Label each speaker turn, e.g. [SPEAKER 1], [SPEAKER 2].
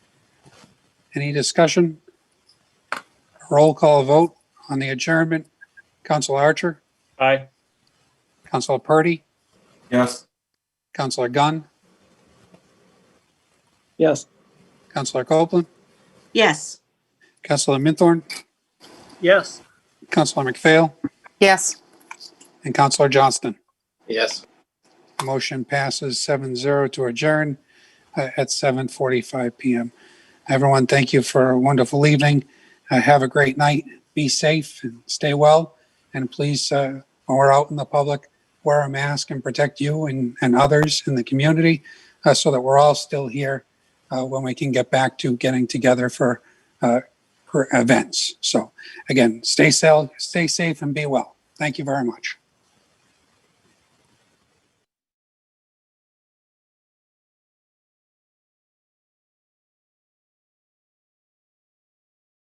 [SPEAKER 1] Any discussion? Roll call vote on the adjournment. Council Archer,
[SPEAKER 2] Aye.
[SPEAKER 1] Council Purdy,
[SPEAKER 3] Yes.
[SPEAKER 1] Councilor Gunn,
[SPEAKER 2] Yes.
[SPEAKER 1] Councilor Copeland,
[SPEAKER 4] Yes.
[SPEAKER 1] Councilor Minthorn,
[SPEAKER 2] Yes.
[SPEAKER 1] Councilor McPhail,
[SPEAKER 5] Yes.
[SPEAKER 1] and Councilor Johnston.
[SPEAKER 6] Yes.
[SPEAKER 1] Motion passes 7-0 to adjourn uh, at seven forty-five PM. Everyone, thank you for a wonderful evening. Uh, Have a great night. Be safe and stay well. And please, uh, when we're out in the public, wear a mask and protect you and, and others in the community uh, so that we're all still here uh, when we can get back to getting together for, uh, for events. So again, stay safe, stay safe and be well. Thank you very much.